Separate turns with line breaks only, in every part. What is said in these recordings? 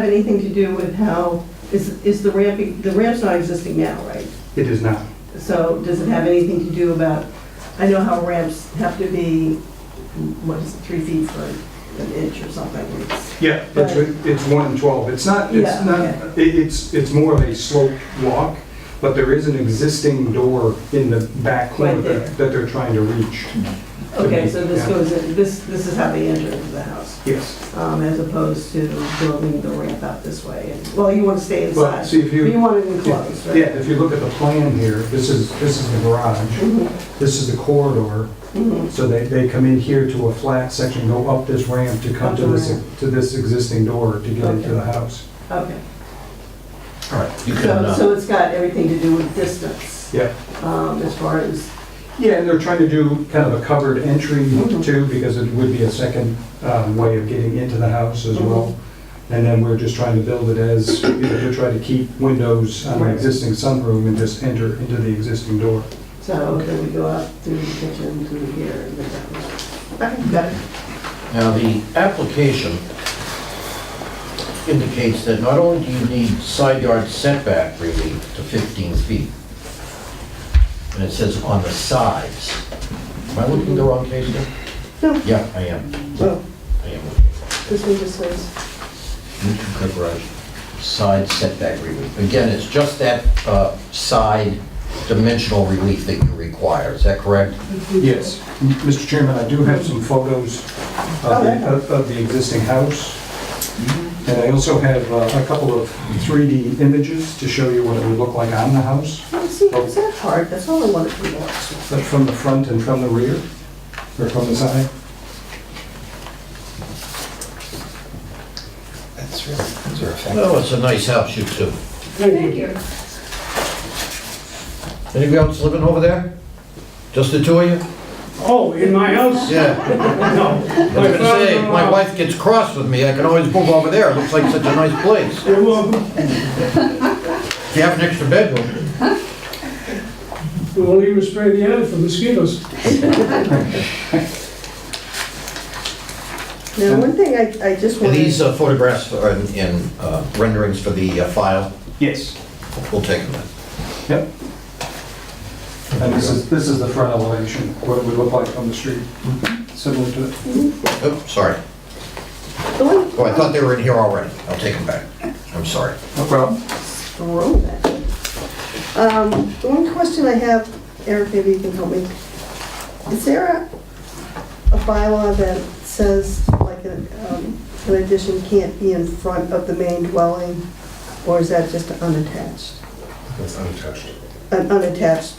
have anything to do with how, is, is the ramp, the ramp's not existing now, right?
It is not.
So does it have anything to do about, I know how ramps have to be, what is it, three feet for an inch or something? It's-
Yeah, it's, it's one in 12. It's not,
Yeah,
it's
okay.
not, it- it's, it's more of a sloped walk, but there is an existing door in the back corner
Right there.
that that they're trying to reach.
Okay, so this
Yeah.
goes, in- this, this is how they enter into the house,
Yes.
um, as opposed to building the ramp out this way. And- Well, you want to stay
Well,
inside,
see if
but you
you,
want it enclosed,
yeah,
right?
if you look at the plan here, this is, this is the garage,
Mhm,
this is the corridor.
mhm.
So they, they come in here to a flat section, go up this ramp to come to this, to this existing door to get into the house.
Okay,
You can,
so,
uh,
so it's got everything to do with distance,
Yeah.
um, as far as,
Yeah, and they're trying to do kind of a covered entry
Mhm.
too, because it would be a second um, way of getting into the house as well. And then we're just trying to build it as, you know, to try to keep windows on the
Right.
existing sunroom and just enter into the existing door.
so then we go out through the kitchen, through here, and then that way. Okay, got it.
now the application indicates that not only do you need side yard setback relief to 15 feet, and it says on the sides. Am I looking the wrong case here?
No.
Yeah, I am.
Well,
I am.
this one just says,
New two-car garage, side setback relief. Again, it's just that uh, side dimensional relief that you require. Is that correct?
Yes. M- Mr. Chairman, I do have some photos of
Okay.
the, of- of the existing house. And I also have uh, a couple of 3D images to show you what it would look like on the house,
oh, see, is that hard? That's all I wanted to know.
but from the front and from the rear, or from the side.
That's really, those are effective.
Oh, it's a nice house, you two.
Thank you.
Anybody else living over there? Just the two of you?
Oh, in my house?
Yeah.
No.
I was gonna say, if my wife gets cross with me, I can always move over there. It looks like such a nice place.
You're welcome.
If you have an extra bedroom.
We'll even spray the attic for mosquitoes.
Now, one thing I, I just
And
wanted.
these uh, photographs are in- in uh, renderings for the uh, file,
Yes.
we'll take them.
Yep. And this is, this is the front elevation, what it would look like from the street, similar to,
Oh, sorry.
The one
Oh, I thought they were in here already. I'll take them back. I'm sorry.
no problem.
throw that. Um, the one question I have, Eric, maybe you can help me. Is there a, a bylaw that says like a, um, an addition can't be in front of the main dwelling? Or is that just unattached?
That's unattached.
An unattached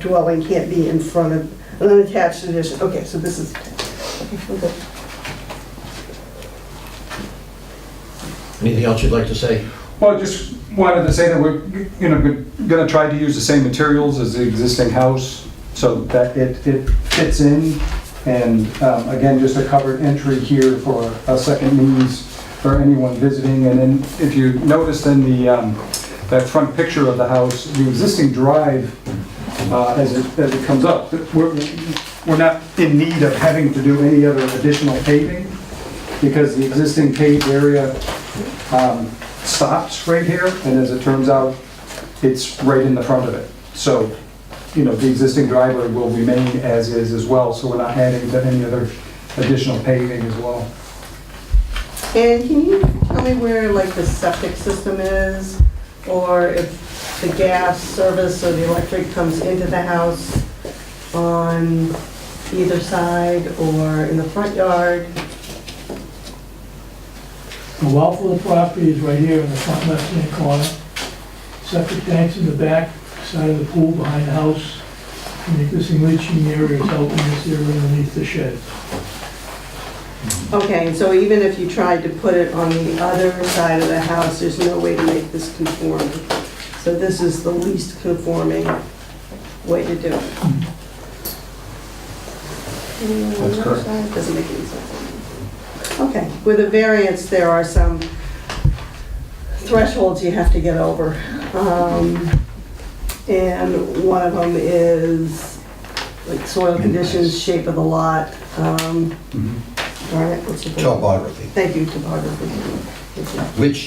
dwelling can't be in front of, an unattached addition, okay, so this is. okay.
Anything else you'd like to say?
Well, just wanted to say that we're, you know, gonna try to use the same materials as the existing house, so that it, it fits in. And um, again, just a covered entry here for a second means for anyone visiting. And then if you noticed in the, um, that front picture of the house, the existing drive, uh, as it, as it comes up, we're, we're not in need of having to do any other additional paving because the existing paved area um, stops right here, and as it turns out, it's right in the front of it. So, you know, the existing driveway will remain as is as well, so we're not adding to any other additional paving as well.
And can you tell me where like the septic system is? Or if the gas service or the electric comes into the house on either side or in the front yard?
The well for the property is right here in the front left-hand corner. Septic tanks in the back, side of the pool, behind the house. And the existing leaching area is out in this area underneath the shed.
Okay, so even if you tried to put it on the other side of the house, there's no way to make this conforming. So this is the least conforming way to do it. That's correct. Doesn't make any sense. Okay, with a variance, there are some thresholds you have to get over. Um, And one of them is like soil conditions, shape of the lot, um, all right, what's the...
Topography.
Thank you, topography.
which